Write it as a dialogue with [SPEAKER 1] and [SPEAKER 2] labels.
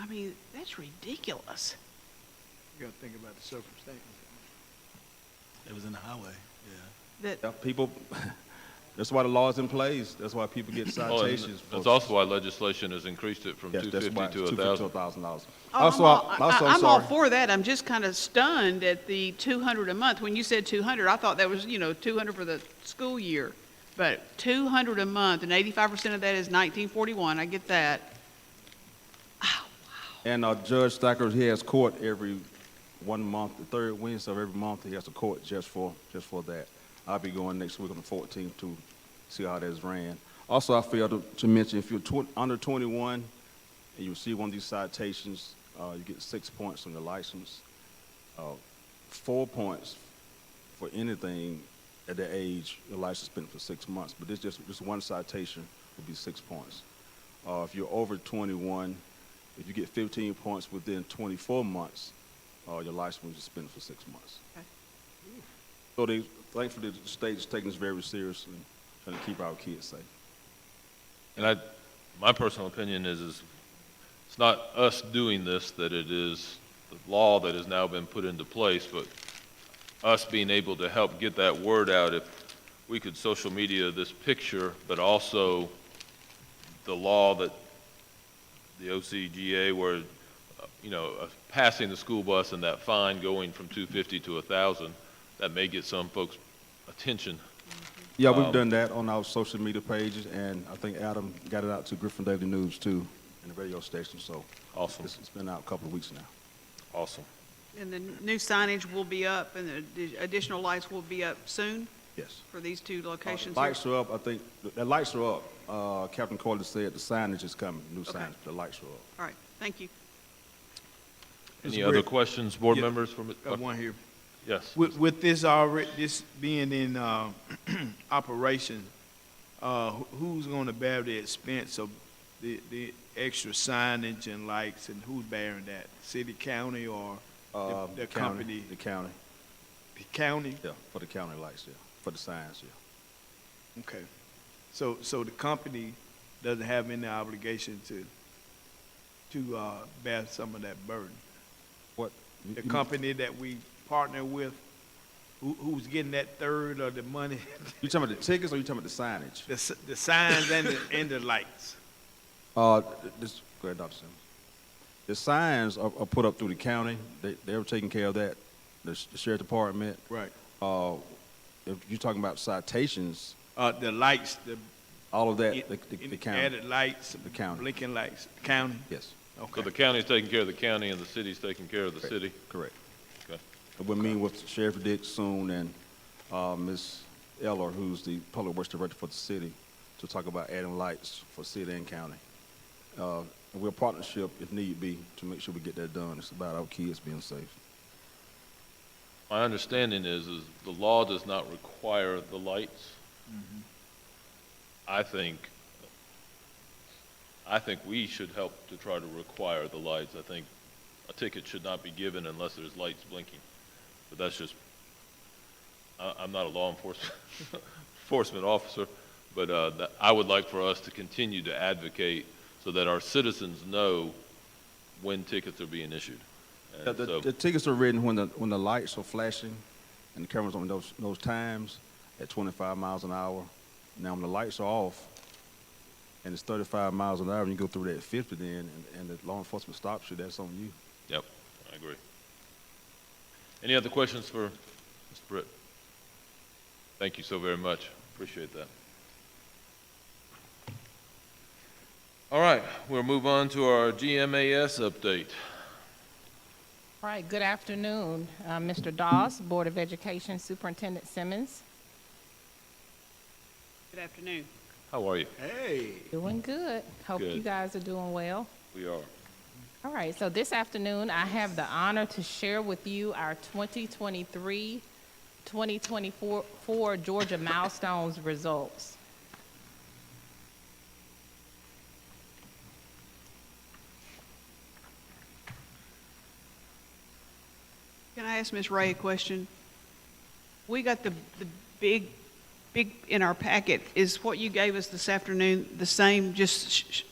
[SPEAKER 1] I mean, that's ridiculous.
[SPEAKER 2] You gotta think about the circumstances.
[SPEAKER 3] It was in the highway, yeah.
[SPEAKER 1] That,
[SPEAKER 4] Yeah, people, that's why the law's in place. That's why people get
[SPEAKER 5] Well, Oh, and
[SPEAKER 4] citations. for-
[SPEAKER 5] That's also why legislation has increased it from
[SPEAKER 4] Yes, that's why
[SPEAKER 5] 250
[SPEAKER 4] it's
[SPEAKER 5] to
[SPEAKER 4] $250 to
[SPEAKER 5] 1,000.
[SPEAKER 4] $1,000.
[SPEAKER 1] oh,
[SPEAKER 4] Also,
[SPEAKER 1] I'm,
[SPEAKER 4] I-
[SPEAKER 1] all, I-
[SPEAKER 4] also,
[SPEAKER 1] I'm all
[SPEAKER 4] sorry.
[SPEAKER 1] for that. I'm just kind of stunned at the 200 a month. When you said 200, I thought that was, you know, 200 for the school year. But 200 a month, and 85% of that is 1941. I get that.
[SPEAKER 4] And uh, Judge Thacker, he has court every one month, the third Wednesday of every month, he has a court just for, just for that. I'll be going next week on the 14th to see how that's ran. Also, I failed to- to mention, if you're tw- under 21 and you receive one of these citations, uh, you get six points on your license, uh, four points for anything at that age, your license been for six months, but this just, just one citation would be six points. Uh, if you're over 21, if you get 15 points within 24 months, uh, your license will be suspended for six months.
[SPEAKER 1] Okay.
[SPEAKER 4] So they, thankfully, the state is taking this very seriously, trying to keep our kids safe.
[SPEAKER 5] And I, my personal opinion is, is it's not us doing this that it is the law that has now been put into place, but us being able to help get that word out. If we could social media this picture, but also the law that the OCGA where, uh, you know, uh, passing the school bus and that fine going from 250 to 1,000, that may get some folks' attention.
[SPEAKER 4] Yeah, we've
[SPEAKER 5] Um,
[SPEAKER 4] done that on our social media pages, and I think Adam got it out to Griffin Daily News too, and the radio station. So
[SPEAKER 5] Awesome,
[SPEAKER 4] it's, it's been out a couple of weeks now.
[SPEAKER 5] awesome.
[SPEAKER 1] And the new signage will be up, and the additional lights will be up soon
[SPEAKER 4] Yes.
[SPEAKER 1] for these two
[SPEAKER 4] Uh,
[SPEAKER 1] locations.
[SPEAKER 4] the lights are up. I think the, the lights are up. Uh, Captain Corley said the signage is coming. New
[SPEAKER 1] Okay.
[SPEAKER 4] signage. The lights are up.
[SPEAKER 1] All right, thank you.
[SPEAKER 5] Any
[SPEAKER 2] Mr.
[SPEAKER 5] other
[SPEAKER 2] Brick.
[SPEAKER 5] questions, board
[SPEAKER 2] Yeah.
[SPEAKER 5] members? from-
[SPEAKER 2] Got one here.
[SPEAKER 5] Yes.
[SPEAKER 2] With, with this already, this being in, uh, operation, uh, wh- who's gonna bear the expense of the, the extra signage and lights and who's bearing that? City, county, or the,
[SPEAKER 4] Um,
[SPEAKER 2] the
[SPEAKER 4] county-
[SPEAKER 2] company?
[SPEAKER 4] The county.
[SPEAKER 2] The county?
[SPEAKER 4] Yeah, for the county lights. Yeah, for the signs. Yeah.
[SPEAKER 2] Okay. So, so the company doesn't have any obligation to, to, uh, bear some of that burden?
[SPEAKER 4] What?
[SPEAKER 2] the
[SPEAKER 4] you-
[SPEAKER 2] company that we partner with, who, who's getting that third of the money,
[SPEAKER 4] You talking about the tickets or you talking about the signage?
[SPEAKER 2] the, s- the signs and the, and the lights.
[SPEAKER 4] Uh, th- this, go ahead, Dr. Simmons. The signs are, are put up through the county. They, they're taking care of that, the sh- the sheriff department.
[SPEAKER 2] Right.
[SPEAKER 4] Uh, if you're talking about citations,
[SPEAKER 2] Uh, the lights, the.
[SPEAKER 4] all of that,
[SPEAKER 2] in-
[SPEAKER 4] the, the,
[SPEAKER 2] in-
[SPEAKER 4] the county.
[SPEAKER 2] Added lights.
[SPEAKER 4] The county.
[SPEAKER 2] Blinking lights, county,
[SPEAKER 4] Yes,
[SPEAKER 5] So the
[SPEAKER 2] okay.
[SPEAKER 5] county's taking care of the county and the city's taking care of the city?
[SPEAKER 4] correct.
[SPEAKER 5] Okay.
[SPEAKER 4] And We'll meet with Sheriff Dick soon and, uh, Ms. Eller, who's the public works director for the city, to talk about adding lights for city and county. Uh, we're a partnership if need be to make sure we get that done. It's about our kids being safe.
[SPEAKER 5] My understanding is, is the law does not require the lights. I think, I think we should help to try to require the lights. I think a ticket should not be given unless there's lights blinking. But that's just, I, I'm not a law enforcement, enforcement officer, but, uh, that, I would like for us to continue to advocate so that our citizens know when tickets are being issued. And
[SPEAKER 4] The, the,
[SPEAKER 5] so-
[SPEAKER 4] the tickets are written when the, when the lights are flashing and the cameras on those, those times at 25 miles an hour. Now, when the lights are off and it's 35 miles an hour and you go through that 50 then and, and the law enforcement stops you, that's on you.
[SPEAKER 5] Yep, I agree. Any other questions for Mr. Britt? Thank you so very much. Appreciate that. All right, we'll move on to our GMAS update.
[SPEAKER 6] All right, good afternoon, uh, Mr. Dawes, Board of Education Superintendent Simmons.
[SPEAKER 1] Good afternoon.
[SPEAKER 5] How are you?
[SPEAKER 2] Hey.
[SPEAKER 6] Doing good. Hope you
[SPEAKER 5] Good.
[SPEAKER 6] guys are doing well.
[SPEAKER 5] We are.
[SPEAKER 6] All right, so this afternoon, I have the honor to share with you our 2023, 2024 four Georgia Milestones results.
[SPEAKER 1] Can I ask Ms. Ray a question? We got the, the big, big in our packet. Is what you gave us this afternoon the same, just sh- sh-